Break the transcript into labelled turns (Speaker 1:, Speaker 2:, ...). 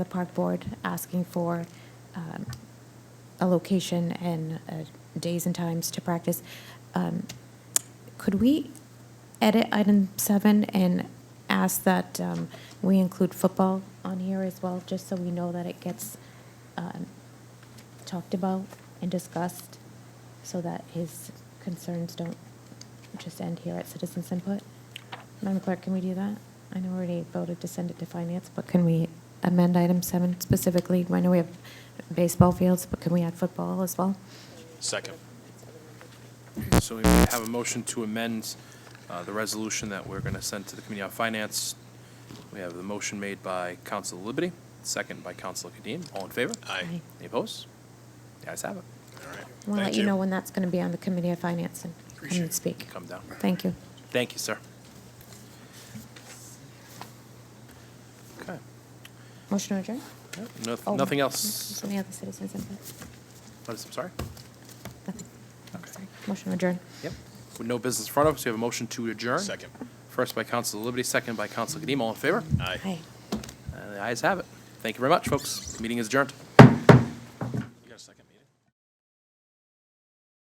Speaker 1: the park board asking for um, a location and uh, days and times to practice. Um, Could we edit item seven and ask that um, we include football on here as well, just so we know that it gets um, talked about and discussed, so that his concerns don't just end here at citizens input? Madam Clerk, can we do that? I know we already voted to send it to finance, but can we amend item seven specifically? I know we have baseball fields, but can we add football as well?
Speaker 2: Second. So we have a motion to amend uh, the resolution that we're going to send to the Committee on Finance. We have the motion made by Council Liberty, second by Council Kadim. All in favor?
Speaker 1: Aye.
Speaker 2: Any opposed? The ayes have it.
Speaker 1: I want to let you know when that's going to be on the Committee of Finance and come and speak.
Speaker 2: Come down.
Speaker 1: Thank you.
Speaker 2: Thank you, sir. Okay.
Speaker 1: Motion to adjourn?
Speaker 2: Yeah, no-
Speaker 1: Oh,
Speaker 2: Nothing else?
Speaker 1: Any other citizens input?
Speaker 2: What is, I'm sorry?
Speaker 1: Nothing.
Speaker 2: Okay.
Speaker 1: Sorry. Motion to adjourn.
Speaker 2: Yep. With no business in front of us, we have a motion to adjourn.
Speaker 3: Second.
Speaker 2: First by Council Liberty, second by Council Kadim. All in favor?
Speaker 3: Aye.
Speaker 1: Aye.
Speaker 2: And the ayes have it. Thank you very much, folks. Meeting is adjourned.
Speaker 3: You got a second?